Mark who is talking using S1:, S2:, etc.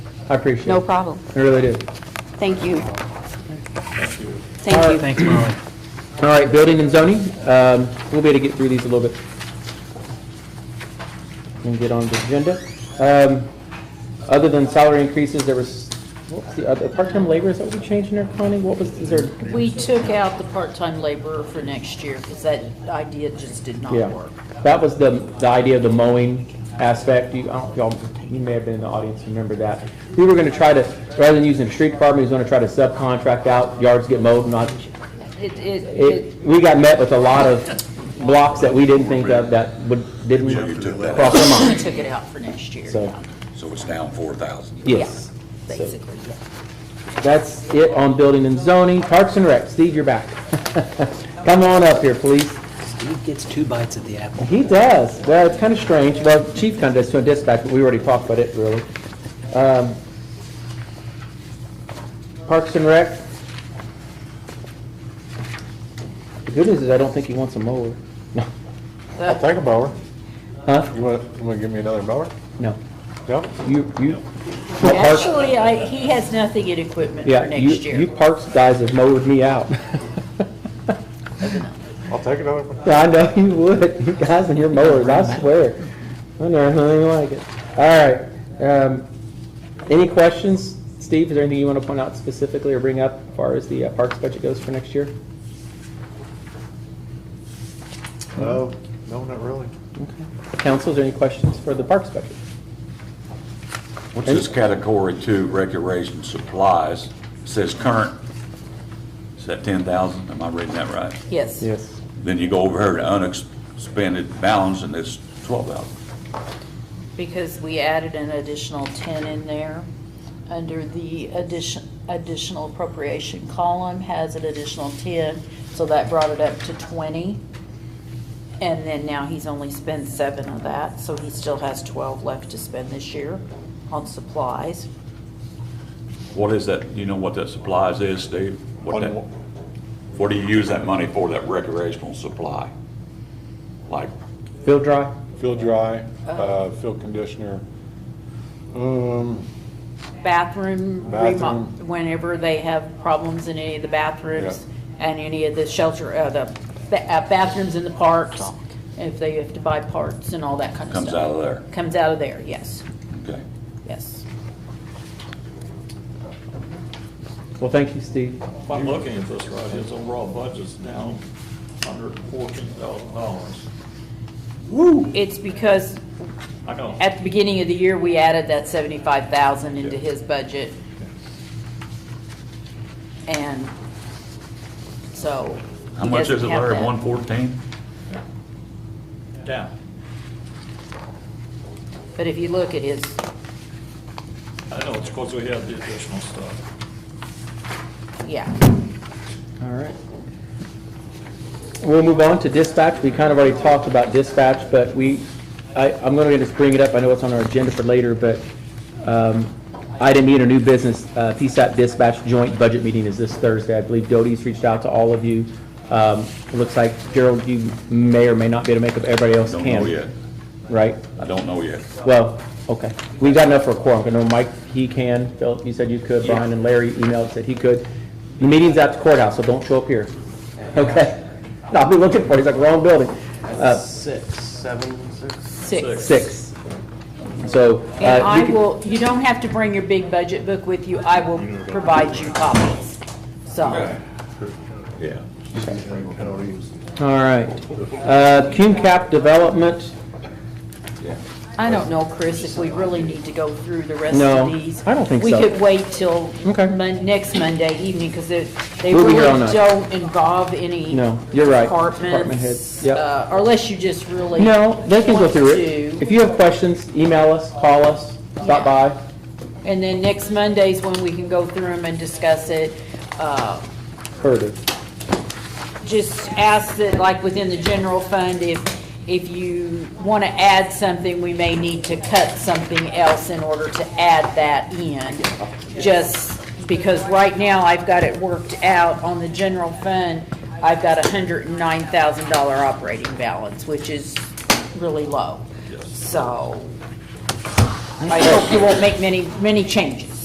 S1: I appreciate it.
S2: No problem.
S1: I really do.
S2: Thank you.
S1: All right.
S2: Thank you.
S3: Thanks, Molly.
S1: All right, building and zoning, um, we'll be able to get through these a little bit. And get on the agenda. Um, Other than salary increases, there was, what was the other, part-time labor, is that what we changed in there, Connie? What was, is there?
S4: We took out the part-time laborer for next year because that idea just did not
S1: Yeah,
S4: work.
S1: that was the, the idea of the mowing aspect. You, I don't, y'all, you may have been in the audience, remember that. We were gonna try to, rather than using the street department, we was gonna try to subcontract out, yards get mowed, not,
S4: It, it, it,
S1: it, we got met with a lot of blocks that we didn't think of that would, didn't
S5: You took that
S1: cross our
S4: we
S1: mind,
S4: took it out for next year,
S1: so,
S4: yeah,
S5: So it's down four thousand.
S1: yes. So
S4: basically, yeah.
S1: That's it on building and zoning. Parks and Rec, Steve, you're back. Come on up here, please.
S3: Steve gets two bites at the apple.
S1: He does. Well, it's kind of strange. Well, chief kind of does to a dispatch, but we already talked about it, really. Um, Parks and Rec. The good news is I don't think he wants a mower. No,
S6: I'll take a mower.
S1: huh?
S6: You want, you want to give me another mower?
S1: No.
S6: No?
S1: You, you. Parks-
S4: Actually, I, he has nothing in equipment for
S1: Yeah, you,
S4: next
S1: you
S4: year.
S1: parks guys have mowed me out.
S6: I'll take another one.
S1: I know you would, you guys and your mowers, I swear. I never heard anything like it. All right, um, any questions? Steve, is there anything you want to point out specifically or bring up as far as the uh, parks budget goes for next year?
S6: No, no, not really.
S1: Council, is there any questions for the parks budget?
S5: What's this category two, recreation supplies, says current, is that ten thousand? Am I reading that right?
S4: Yes.
S1: Yes.
S5: Then you go over here to unexpended balance and it's twelve thousand.
S4: Because we added an additional ten in there. Under the addition, additional appropriation column has an additional ten, so that brought it up to twenty. And then now he's only spent seven of that, so he still has twelve left to spend this year on supplies.
S5: What is that, you know what that supplies is, Steve? What
S6: On
S5: that,
S6: what?
S5: what do you use that money for, that recreational supply? Like,
S1: Field dry?
S6: Fill dry, uh, fill conditioner. Um,
S4: Bathroom, remo-
S6: Bathroom.
S4: whenever they have problems in any of the bathrooms and any of the shelter, uh, the ba- uh, bathrooms in the parks, if they have to buy parts and all that kind of stuff.
S5: comes out of there,
S4: Comes out of there, yes,
S5: okay?
S4: yes.
S1: Well, thank you, Steve.
S7: If I'm looking at this right, his overall budget's down hundred and fourteen thousand dollars.
S4: It's because
S7: I know,
S4: at the beginning of the year, we added that seventy-five thousand into his budget. And so.
S5: How
S4: he
S5: much is it,
S4: doesn't have
S5: Larry,
S4: that.
S5: one fourteen?
S7: down.
S4: But if you look at his,
S7: I know, it's because we have the additional stuff.
S4: yeah,
S1: All right. We'll move on to dispatch. We kind of already talked about dispatch, but we, I, I'm going to just bring it up. I know it's on our agenda for later, but um, item E in a new business, uh, PSAP dispatch joint budget meeting is this Thursday. I believe Doty's reached out to all of you. Um, It looks like Gerald, you may or may not be able to make up. Everybody else
S5: Don't
S1: can.
S5: know yet,
S1: Right?
S5: I don't know yet.
S1: Well, okay. We've got enough for a quorum. I know Mike, he can. Phil, you said you could. Brian and Larry emailed, said he could. The meeting's at the courthouse, so don't show up here. Okay? No, I'll be looking for you. It's like wrong building. Uh,
S3: Six, seven, six.
S4: six.
S1: six. So. uh,
S4: And I
S1: you can-
S4: will, you don't have to bring your big budget book with you, I will provide you copies, so.
S5: Yeah.
S1: All right. Uh, Cume Cap Development,
S4: I don't know, Chris, if we really need to go through the rest
S1: No,
S4: of these.
S1: I don't think so.
S4: We could wait till
S1: Okay.
S4: Mon- next Monday evening, because they they
S1: We'll be
S4: really
S1: here all night.
S4: don't involve any.
S1: No, you're right. Department heads,
S4: Departments,
S1: yep.
S4: uh, or unless you just really.
S1: no, they can go
S4: want
S1: through it.
S4: to.
S1: If you have questions, email us, call us, stop by.
S4: And then next Monday's when we can go through them and discuss it. Uh,
S1: Further.
S4: just ask that, like, within the general fund, if, if you want to add something, we may need to cut something else in order to add that in. Just because right now, I've got it worked out on the general fund, I've got a hundred and nine thousand dollar operating balance, which is really low. So I hope you won't make many, many changes.